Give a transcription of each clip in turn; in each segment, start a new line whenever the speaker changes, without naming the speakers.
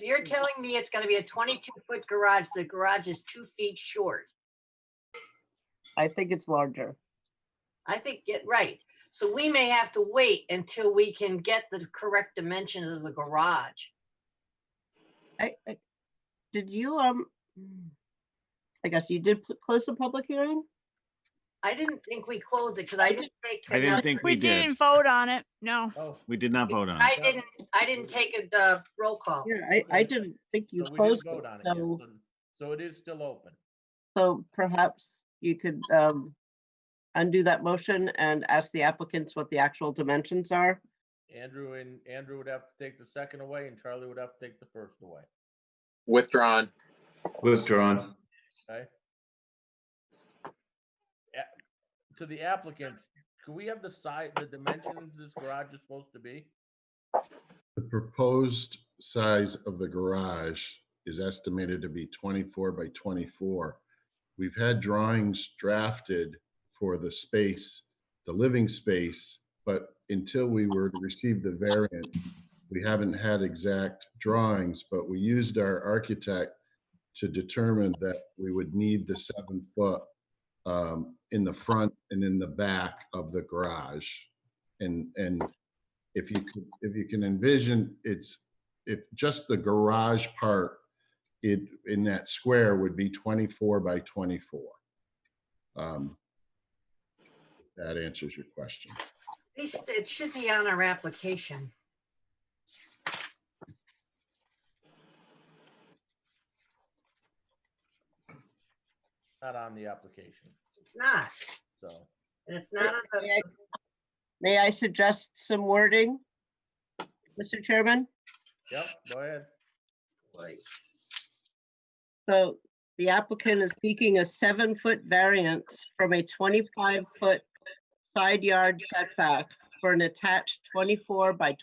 you're telling me it's gonna be a twenty-two foot garage, the garage is two feet short.
I think it's larger.
I think, get right, so we may have to wait until we can get the correct dimensions of the garage.
I, I, did you, um, mm, I guess you did pl- close the public hearing?
I didn't think we closed it, because I didn't take.
I didn't
enough-
think
We
we did.
didn't vote on it, no.
Oh,
We did not vote on
I
it.
didn't, I didn't take a uh, roll call.
Yeah, I, I
Okay.
didn't think you
so we didn't
closed it,
vote on it yet,
so,
so- So it is still open.
so perhaps you could, um, undo that motion and ask the applicants what the actual dimensions are.
Andrew and Andrew would have to take the second away and Charlie would have to take the first away.
Withdrawn.
Withdrawn.
To the applicant, could we have the side, the dimensions this garage is supposed to be?
The proposed size of the garage is estimated to be 24 by 24. We've had drawings drafted for the space, the living space, but until we were to receive the variant, we haven't had exact drawings, but we used our architect to determine that we would need the seven foot um, in the front and in the back of the garage. And, and if you could, if you can envision, it's, if just the garage part, it, in that square would be 24 by 24. Um, That answers your question.
At least It should be on our application.
Not on the application,
It's not,
so.
and it's not on the,
May I- May I suggest some wording? Mr. Chairman?
Yep, go ahead.
So the applicant is seeking a seven-foot variance from a 25-foot side yard setback for an attached 24 by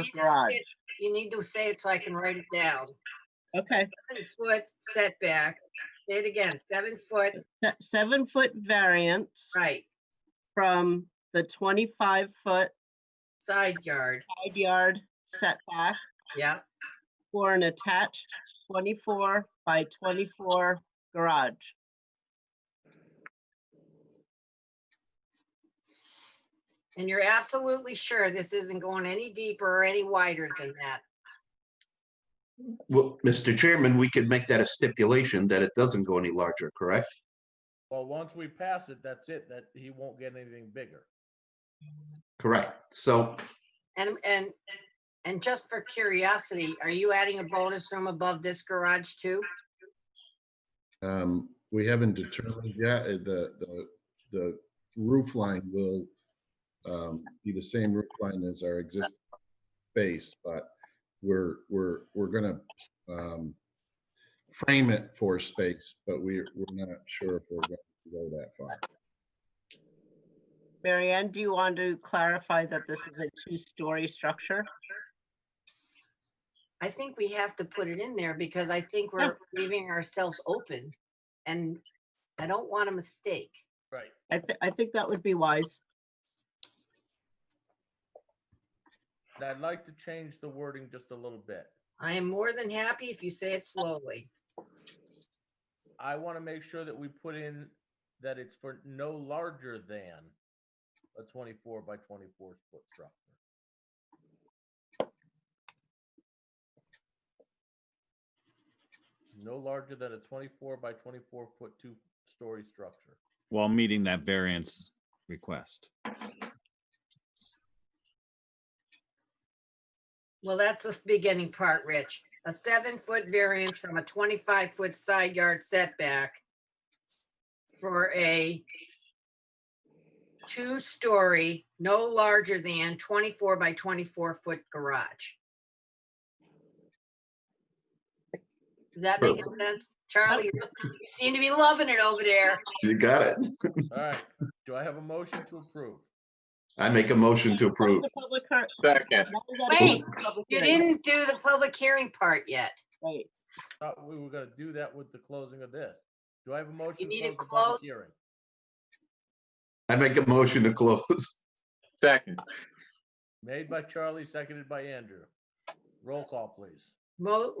You need to say
garage.
it- You need to say it so I can write it down.
Okay,
Seven foot setback, say it again, seven foot,
se- seven-foot variance
right,
from the 25-foot
side yard,
side yard setback
yeah,
for an attached 24 by 24 garage.
and you're absolutely sure this isn't going any deeper or any wider than that.
Well, Mr. Chairman, we could make that a stipulation that it doesn't go any larger, correct?
Well, once we pass it, that's it, that he won't get anything bigger.
Correct. So
And, and, and just for curiosity, are you adding a bonus room above this garage too?
Um, We haven't determined yet, uh, the, the, the roof line will um, be the same roof line as our existing space, but we're, we're, we're gonna um, frame it for space, but we're, we're not sure if we're going to go that far.
Mary Ann, do you want to clarify that this is a two-story structure?
I think we have to put it in there because I think we're leaving ourselves open and I don't want a mistake.
Right.
I, thi- I think that would be wise.
And I'd like to change the wording just a little bit.
I am more than happy if you say it slowly.
I want to make sure that we put in that it's for no larger than a twenty-four by twenty-four foot structure. No larger than a twenty-four by twenty-four foot two-story structure.
While meeting that variance request.
Well, that's the beginning part, Rich. A seven-foot variance from a twenty-five foot side yard setback for a two-story, no larger than twenty-four by twenty-four foot garage. Does that make
Perfect.
sense? Charlie, you seem to be loving it over there.
you got it.
All right, do I have a motion to approve?
I make a motion to
Close
approve.
the public hear-
Second.
now we gotta close
Wait,
the public
You
hearing.
didn't do the public hearing part yet.
Wait,
Thought we were gonna do that with the closing of this. Do I have a motion? to
need it
close the public
closed?
Hearing.
I make a motion to close. Second.
Made by Charlie, seconded by Andrew. Roll call, please.
Mo,